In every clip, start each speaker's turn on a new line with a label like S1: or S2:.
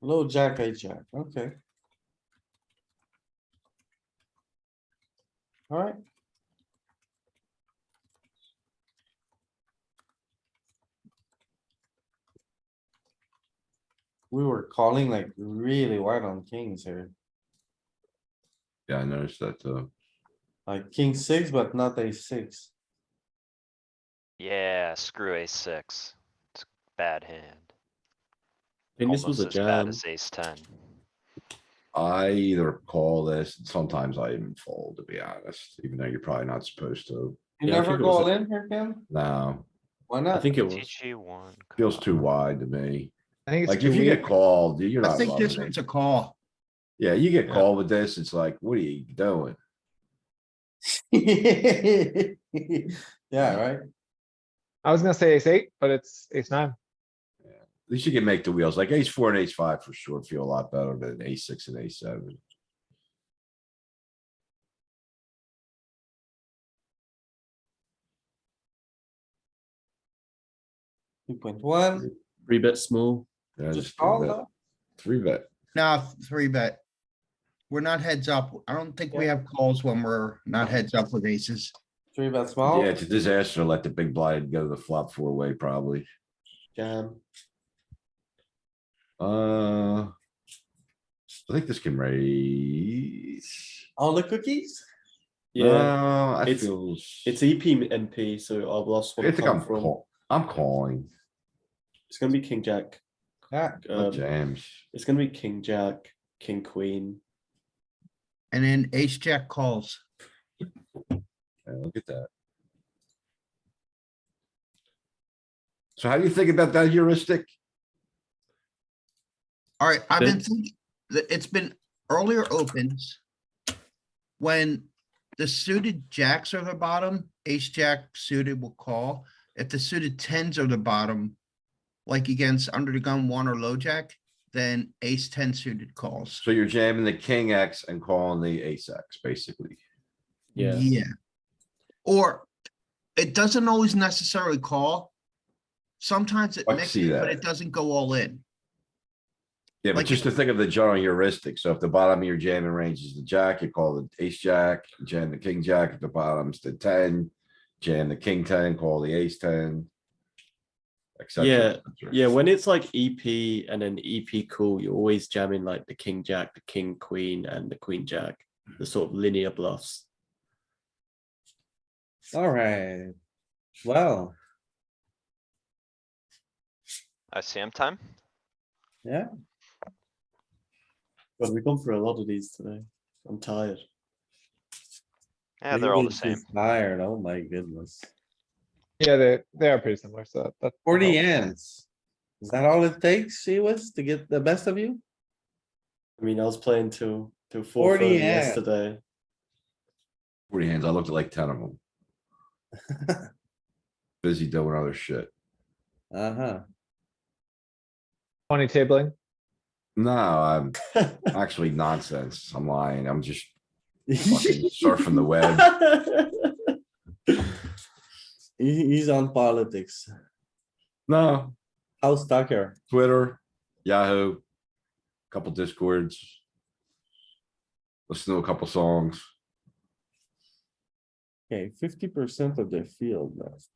S1: Low jack, I jack, okay. Alright. We were calling like really wide on kings here,
S2: Yeah, I noticed that uh, too.
S1: like king six, but not a six.
S3: Yeah, screw ace six. It's a bad hand.
S4: And this was a
S3: Almost as bad
S4: jam.
S3: As ace ten.
S2: I either call this, and sometimes I even fold, to be honest, even though you're probably not supposed to.
S1: You
S4: Yeah, I
S1: never
S4: think it was
S1: go all
S4: a-
S1: in here, Ken?
S2: No,
S1: Why
S4: I
S1: not?
S4: think it was.
S3: GG one.
S2: feels
S3: call.
S2: too wide to me.
S5: I think it's
S2: Like
S5: too
S2: if you
S5: weak.
S2: get called, you're
S5: I
S2: not
S5: think this
S2: loving
S5: one's
S2: it.
S5: a call.
S2: Yeah, you get
S4: Yeah.
S2: called with this, it's like, what are you doing?
S1: Yeah, right?
S5: I was gonna say ace eight, but it's ace nine.
S2: At least you can make the wheels, like ace four and ace five for sure feel a lot better than ace six and ace seven.
S1: Two point one,
S4: Three bet small.
S2: Yeah,
S1: just
S2: just three
S1: call
S2: bet-
S1: though.
S2: Three bet,
S6: No, three bet. We're not heads up. I don't think we have calls when we're not heads up with aces.
S1: three bet small,
S2: yeah, it's a disaster, to let the big blind go to the flop four way probably,
S1: jam.
S2: uh. I think this can raise.
S1: All the cookies?
S4: Yeah,
S2: Uh, I
S4: it's-
S2: feel.
S4: it's E EP MP, so our last
S2: I
S4: one
S2: think I'm,
S4: come from.
S2: call- I'm calling,
S4: It's gonna be king jack.
S1: Yeah.
S2: uh,
S4: Um,
S2: jams,
S4: it's gonna be king jack, king queen.
S6: And then ace jack calls.
S2: Yeah, look at that. So how do you think about that heuristic?
S6: Alright, I've been
S4: Then-
S6: thinking, that it's been earlier opens. When the suited jacks are the bottom, ace jack suited will call. If the suited tens are the bottom. Like against under the gun one or low jack, then ace ten suited calls.
S2: So you're jamming the king X and calling the ace X, basically.
S4: Yeah.
S6: Yeah. Or it doesn't always necessarily call. Sometimes it
S2: I can see
S6: mixes, but
S2: that.
S6: it doesn't go all in.
S2: Yeah, but
S6: Like-
S2: just to think of the general heuristic, so if the bottom of your jamming range is the jack, you call the ace jack, jam the king jack, if the bottom's the ten, jam the king ten, call the ace ten. et cetera, et
S4: Yeah,
S2: cetera.
S4: Yeah, when it's like EP and an EP call, you're always jamming like the king jack, the king queen, and the queen jack, the sort of linear bluffs.
S1: Alright, well,
S3: ICM time?
S4: But we've gone through a lot of these today. I'm tired.
S3: Yeah, they're all the
S1: Davis
S3: same.
S1: is Tired, oh my goodness.
S5: Yeah, they, they are pretty similar, so that- that.
S1: Forty ends. Is that all it takes, she was, to get the best of you?
S4: I mean, I was playing till till four
S1: 40,
S4: thirty
S1: yeah.
S4: yesterday.
S2: Forty hands, I looked at like ten of them. Busy doing other shit.
S1: Uh-huh.
S5: Twenty tabling.
S2: No, I'm actually nonsense. I'm lying. I'm just fucking surfing the web.
S1: He- he's on politics.
S2: No,
S1: House Tucker,
S2: Twitter, Yahoo, couple discords. Listen to a couple songs.
S1: okay, fifty percent of the field left.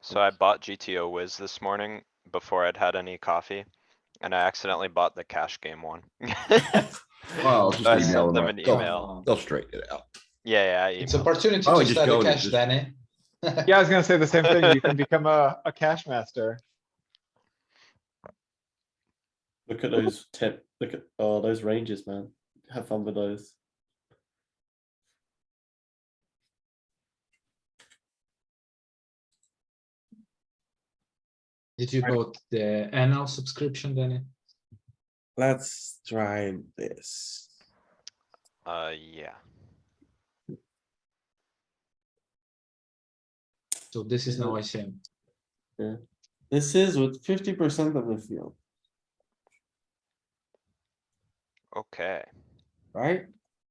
S3: So I bought GTO Wiz this morning before I'd had any coffee. And I accidentally bought the cash game one.
S2: Well,
S3: So I
S2: just email
S3: sent
S2: them.
S3: them
S2: right-
S3: an
S2: They'll
S3: email.
S2: they'll straighten it out.
S3: Yeah, yeah, I
S7: It's
S3: emailed.
S7: opportunity
S2: Oh,
S7: to
S2: just
S7: study
S2: go to
S7: cash
S2: just-
S7: then, eh?
S5: Yeah, I was gonna say the same thing. You can become a, a cash master.
S4: Look at those tip. Look at oh those ranges, man. Have fun with those.
S7: Did you bought the annual subscription, Danny?
S1: Let's try this.
S3: Uh, yeah.
S7: So this is
S4: Yeah.
S7: now ICM.
S1: This is with fifty percent of the field,
S3: Okay.
S1: right?